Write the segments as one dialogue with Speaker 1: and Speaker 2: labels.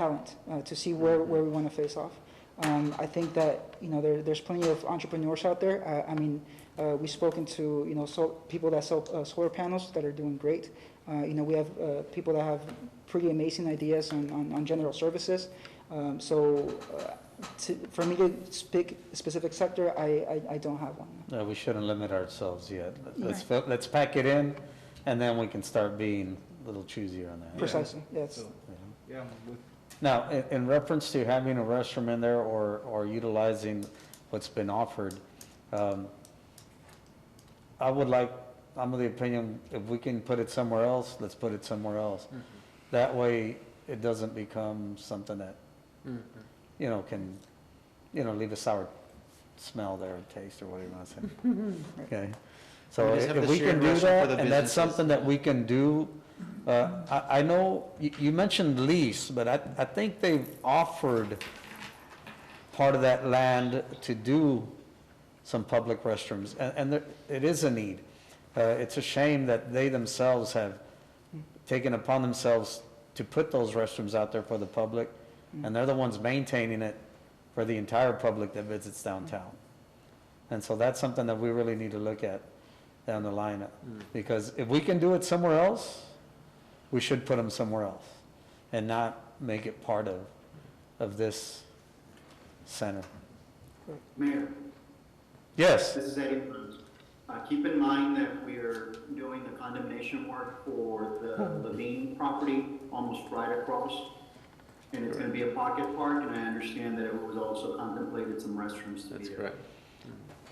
Speaker 1: talent, uh, to see where, where we want to face off. Um, I think that, you know, there, there's plenty of entrepreneurs out there. Uh, I mean, uh, we've spoken to, you know, so, people that sell uh, solar panels that are doing great. Uh, you know, we have uh, people that have pretty amazing ideas on, on, on general services. Um, so, uh, to, for me to pick a specific sector, I, I, I don't have one.
Speaker 2: No, we shouldn't limit ourselves yet. Let's, fill- let's pack it in, and then we can start being a little choosier on that.
Speaker 1: Precisely, yes.
Speaker 3: So, yeah, I'm with-
Speaker 2: Now, in, in reference to having a restroom in there or, or utilizing what's been offered, um, I would like, I'm of the opinion, if we can put it somewhere else, let's put it somewhere else.
Speaker 4: Mm-hmm.
Speaker 2: That way, it doesn't become something that,
Speaker 4: Mm-hmm.
Speaker 2: you know, can, you know, leave a sour smell there, or taste, or whatever you want to say. Okay? So
Speaker 4: Or just have
Speaker 2: if
Speaker 4: the
Speaker 2: we can
Speaker 4: shared
Speaker 2: do
Speaker 4: restroom for
Speaker 2: that,
Speaker 4: the
Speaker 2: and that's
Speaker 4: businesses.
Speaker 2: something that we can do, uh, I, I know, you, you mentioned lease, but I, I think they've offered part of that land to do some public restrooms, and, and there, it is a need. Uh, it's a shame that they themselves have taken upon themselves to put those restrooms out there for the public, and they're the ones maintaining it for the entire public that visits downtown. And so that's something that we really need to look at down the line,
Speaker 4: Mm-hmm.
Speaker 2: because if we can do it somewhere else, we should put them somewhere else, and not make it part of, of this center.
Speaker 5: Mayor,
Speaker 2: Yes,
Speaker 5: this is Eddie Cruz. Uh, Keep in mind that we're doing the condemnation work for the Levine property almost right across. And it's going to be a pocket park, and I understand that it was also contemplated some restrooms to be
Speaker 4: That's
Speaker 5: there.
Speaker 4: correct.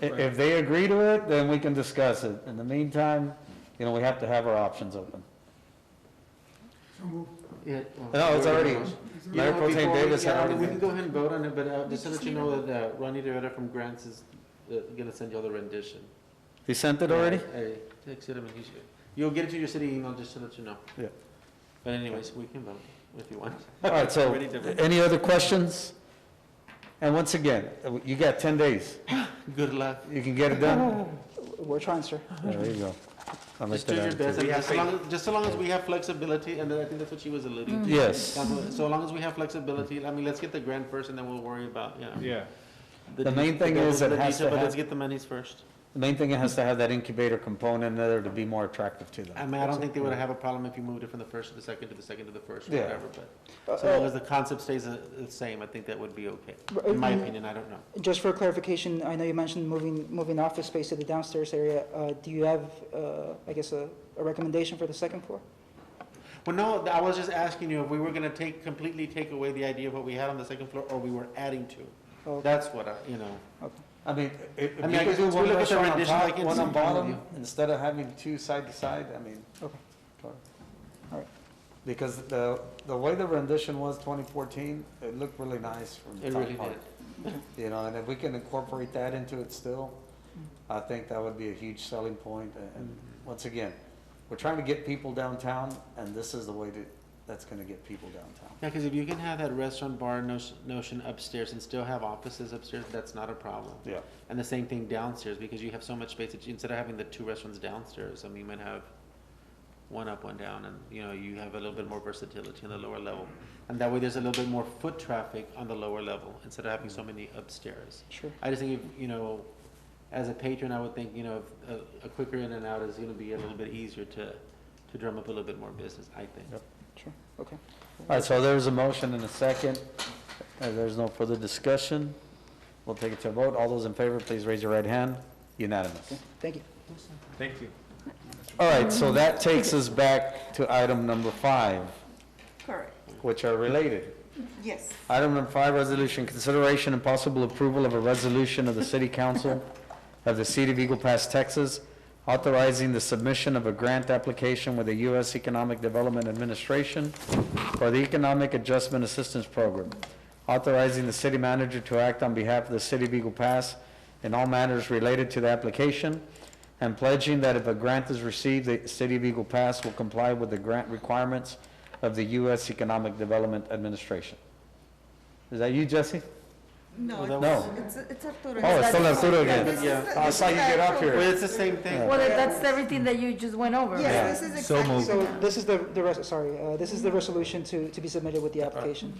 Speaker 2: i- if they agree to it, then we can discuss it. In the meantime, you know, we have to have our options open.
Speaker 4: No,
Speaker 2: No, it's already- Mayor Pro Tem Davis had already
Speaker 4: We
Speaker 2: been-
Speaker 4: can go ahead and vote on it, but uh, just to let you know that uh, Ronnie Rivera from Grants is uh, gonna send y'all the rendition. Uh,
Speaker 2: They sent it
Speaker 4: Hey, text him and you should- You'll get it to your city email, just to let you know.
Speaker 2: Yeah.
Speaker 4: But anyways, we can vote if you want.
Speaker 2: All right, so,
Speaker 4: Ready to vote.
Speaker 2: any other questions? And once again, you got 10 days.
Speaker 4: Good luck.
Speaker 2: You can get it done?
Speaker 1: We're trying, sir.
Speaker 2: There you go. I'll make
Speaker 4: Just do
Speaker 2: that
Speaker 4: your
Speaker 2: attitude.
Speaker 4: best, I
Speaker 3: We
Speaker 4: mean,
Speaker 3: have
Speaker 4: just so long, just so long as we have flexibility, and then I think that's what she was alluding to.
Speaker 2: Yes.
Speaker 4: Um, So long as we have flexibility, I mean, let's get the grant first, and then we'll worry about, you know.
Speaker 3: Yeah,
Speaker 2: The
Speaker 4: de-
Speaker 2: main thing
Speaker 4: the-
Speaker 2: is it
Speaker 4: the
Speaker 2: has
Speaker 4: detail,
Speaker 2: to
Speaker 4: But let's
Speaker 2: have-
Speaker 4: get the monies first.
Speaker 2: The main thing, it has to have that incubator component in there to be more attractive to
Speaker 4: I
Speaker 2: them.
Speaker 4: mean, I don't think they would have a problem if you moved it from the first to the second to the second to the first, or
Speaker 2: Yeah.
Speaker 4: whatever, but
Speaker 1: Uh,
Speaker 4: so long
Speaker 1: uh,
Speaker 4: as the concept stays uh, the same, I think that would be okay.
Speaker 1: But,
Speaker 4: In my
Speaker 2: Mm-hmm.
Speaker 1: um,
Speaker 4: opinion, I don't know.
Speaker 1: Just for clarification, I know you mentioned moving, moving office space to the downstairs area. Uh, Do you have, uh, I guess, a a recommendation for the second floor?
Speaker 4: Well, no, th- I was just asking you if we were gonna take, completely take away the idea of what we had on the second floor, or we were adding to.
Speaker 1: Oh,
Speaker 4: That's what I, you know.
Speaker 2: I mean, i- if you
Speaker 4: I mean, I
Speaker 2: could
Speaker 4: guess
Speaker 2: do
Speaker 4: we
Speaker 2: one
Speaker 4: look at the
Speaker 2: restaurant on
Speaker 4: rendition, I
Speaker 2: top,
Speaker 4: can
Speaker 2: one on
Speaker 4: see all of
Speaker 2: bottom,
Speaker 4: you.
Speaker 2: instead of having two side to side, I mean.
Speaker 1: Okay. Alright.
Speaker 2: Because the, the way the rendition was 2014, it looked really nice from the
Speaker 4: It really
Speaker 2: top part.
Speaker 4: did.
Speaker 2: You know, and if we can incorporate that into it still, I think that would be a huge selling point. And- And once again, we're trying to get people downtown, and this is the way to, that's gonna get people downtown.
Speaker 4: Yeah, because if you can have that restaurant bar nos- notion upstairs and still have offices upstairs, that's not a problem.
Speaker 2: Yeah.
Speaker 4: And the same thing downstairs, because you have so much space, that you- instead of having the two restaurants downstairs, I mean, you might have one up, one down, and, you know, you have a little bit more versatility on the lower level. And that way, there's a little bit more foot traffic on the lower level, instead of having so many upstairs.
Speaker 1: Sure.
Speaker 4: I just think, if, you know, as a patron, I would think, you know, if a, a quicker in and out is gonna be a little bit easier to, to drum up a little bit more business, I think.
Speaker 2: Yep.
Speaker 1: Sure, okay.
Speaker 2: All right, so there's a motion and a second. Uh, there's no further discussion. We'll take it to a vote. All those in favor, please raise your right hand. Unanimous.
Speaker 1: Thank you.
Speaker 3: thank you.
Speaker 2: All right, so that takes us back to item number five,
Speaker 6: Correct,
Speaker 2: which are related.
Speaker 6: yes.
Speaker 2: Item number five, resolution, consideration and possible approval of a resolution of the City Council of the City of Eagle Pass, Texas, authorizing the submission of a grant application with the U.S. Economic Development Administration for the Economic Adjustment Assistance Program, authorizing the city manager to act on behalf of the City of Eagle Pass in all matters related to the application, and pledging that if a grant is received, the City of Eagle Pass will comply with the grant requirements of the U.S. Economic Development Administration. Is that you, Jesse?
Speaker 6: No,
Speaker 4: Well,
Speaker 2: that
Speaker 6: it's, it's it's Arturo.
Speaker 2: Oh, it's still Arturo again.
Speaker 6: This is-
Speaker 4: Yeah.
Speaker 6: this
Speaker 2: I saw you
Speaker 6: is
Speaker 2: get up
Speaker 6: actual-
Speaker 2: here.
Speaker 4: Well, it's the same thing.
Speaker 2: Yeah.
Speaker 7: Well, that- that's everything that you just went over. right?
Speaker 6: Yes, this is exactly.
Speaker 1: So this is the, the res- sorry, uh, this is the resolution to, to be submitted with the application.